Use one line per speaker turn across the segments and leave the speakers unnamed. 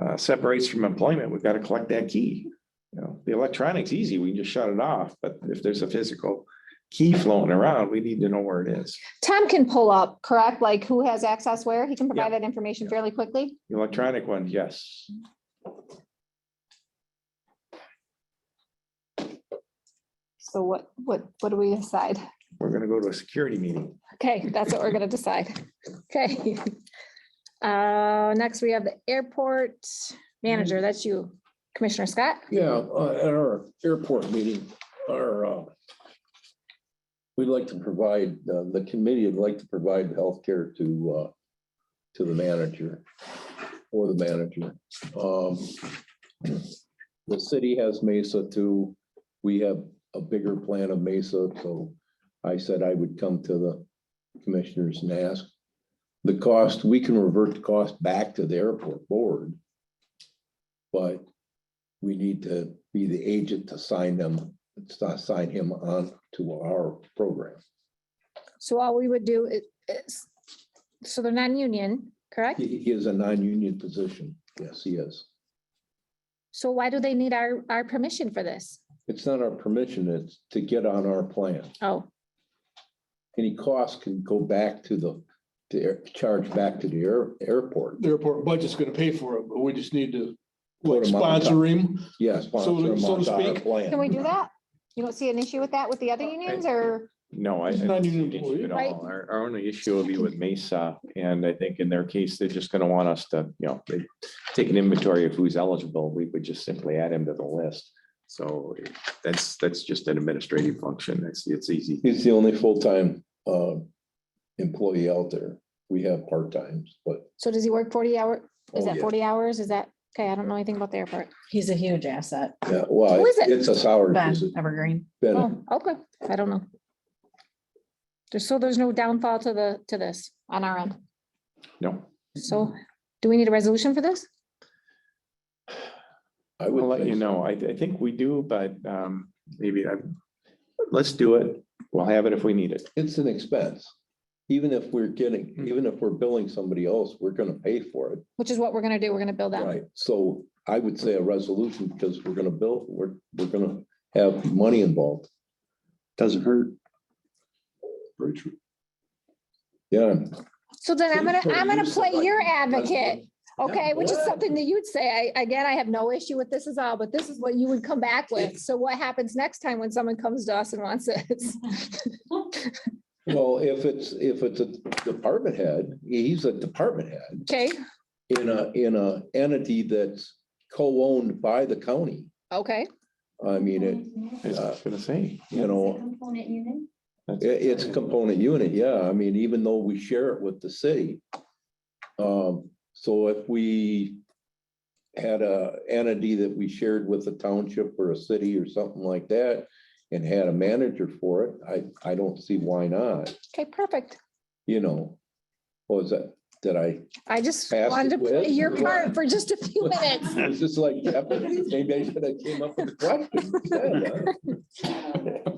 uh, separates from employment, we've got to collect that key. You know, the electronic's easy, we can just shut it off, but if there's a physical key floating around, we need to know where it is.
Tom can pull up, correct? Like who has access where? He can
Yeah.
provide that information fairly quickly.
The Electronic one, yes.
So what, what, what do we decide?
We're gonna go to a security meeting.
Okay, that's what we're gonna decide. Okay. Uh, next we have the airport manager. That's you, Commissioner Scott.
Yeah, uh, at our airport meeting, our, uh, we'd like to provide, uh, the committee would like to provide healthcare to, uh, to the manager or the manager. Um, The city has Mesa too. We have a bigger plan of Mesa, so I said I would come to the commissioners and ask. The cost, we can revert the cost back to the airport board. But we need to be the agent to sign them, to sign him on to our program.
So all we would do is- is, so they're non-union, correct?
He he is a non-union position. Yes, he is.
So why do they need our, our permission for this?
It's not our permission, it's to get on our plan.
Oh,
Any costs can go back to the, to air- charge back to the air, airport.
the airport budget's gonna pay for it, but we just need to
Put 'em on top.
sponsor him.
Yes.
so to speak.
can we do that? You don't see an issue with that with the other unions or?
No, I.
It's
I
not
don't
even
see an
employee.
issue at
Right.
all. Our, our only issue will be with Mesa, and I think in their case, they're just gonna want us to, you know, they take an inventory of who's eligible, we would just simply add him to the list. So that's, that's just an administrative function, it's, it's easy.
He's the only full-time uh, employee out there. We have part-times, but
So does he work forty hour? Is
Oh,
that
yeah.
forty hours? Is that, okay, I don't know anything about the airport.
He's a huge asset,
yeah, well,
Who is it?
it's a salary.
Ben
position.
Evergreen.
Ben,
Oh, okay, I don't know. There's, so there's no downfall to the, to this on our end.
No,
So do we need a resolution for this?
I would
we'll let
say
you
so.
know, I, I think we do, but, um, maybe I, let's do it, we'll have it if we need it.
It's an expense. Even if we're getting, even if we're billing somebody else, we're gonna pay for it.
Which is what we're gonna do. We're gonna build that.
Right. So I would say a resolution because we're gonna bill, we're, we're gonna have money involved.
Doesn't hurt.
Very true.
Yeah.
So then I'm gonna, I'm gonna play your advocate. Okay,
Yeah.
which is something that you'd say. I, again, I have no issue with this is all, but this is what you would come back with. So what happens next time when someone comes to us and wants this?
Well, if it's, if it's a department head, he's a department head
Okay,
in a, in a entity that's co-owned by the county.
okay.
I mean, it,
I was just gonna say.
you know,
Component unit.
i- it's a component unit. Yeah. I mean, even though we share it with the city. Um, so if we had a entity that we shared with a township or a city or something like that and had a manager for it, I, I don't see why not,
Okay, perfect.
you know. What was that? Did I?
I just
Pass the
wanted to play
quiz?
your part for just a few minutes.
It's just like, maybe I should have came up with a question. instead,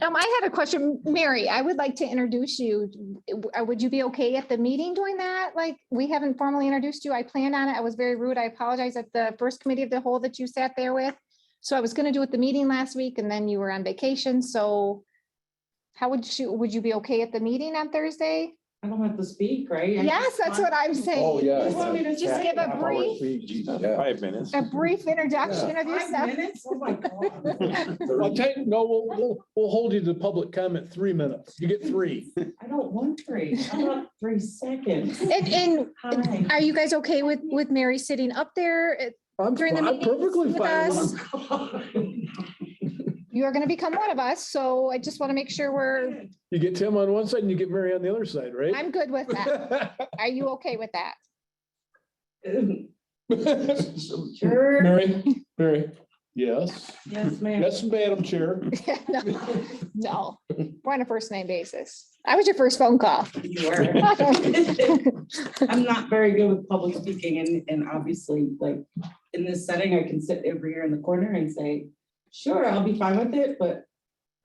Um, I had a question, Mary, I would like to introduce you. Uh, Would you be okay at the meeting doing that? Like, we haven't formally introduced you. I planned on it. I was very rude. I apologize at the first committee of the whole that you sat there with. So I was gonna do it the meeting last week and then you were on vacation, so how would you, would you be okay at the meeting on Thursday?
I don't have to speak, right? I
Yes,
just
that's
want-
what I'm saying.
Oh, yeah.
You want me to Just give a brief,
Yeah.
uh, Five minutes.
a brief introduction of
Five
yourself.
minutes? Oh my God.
I'll
huh?
tell you, no, we'll, we'll, we'll hold you to public comment, three minutes. You get three.
I don't want three. I want three seconds.
And, and
Hi.
are you guys okay with, with Mary sitting up there? It-
I'm
During the
fi- I'm
meetings
perfectly
with
fine with
us? You are gonna become one of us, so I just want to make sure we're,
You get Tim on one side and you get Mary on the other side, right?
I'm good with that. Are you okay with that?
Sure.
Mary, Mary, yes,
Yes, ma'am.
yes, Madam Chair.
No, No, we're on a first name basis. I was your first phone call.
You are. I'm not very good with public speaking and, and obviously like in this setting, I can sit over here in the corner and say, sure, I'll be fine with it, but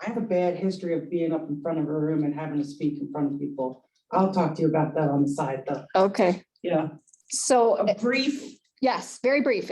I have a bad history of being up in front of a room and having to speak in front of people. I'll talk to you about that on the side though.
Okay,
Yeah,
so,
a brief
yes, very brief.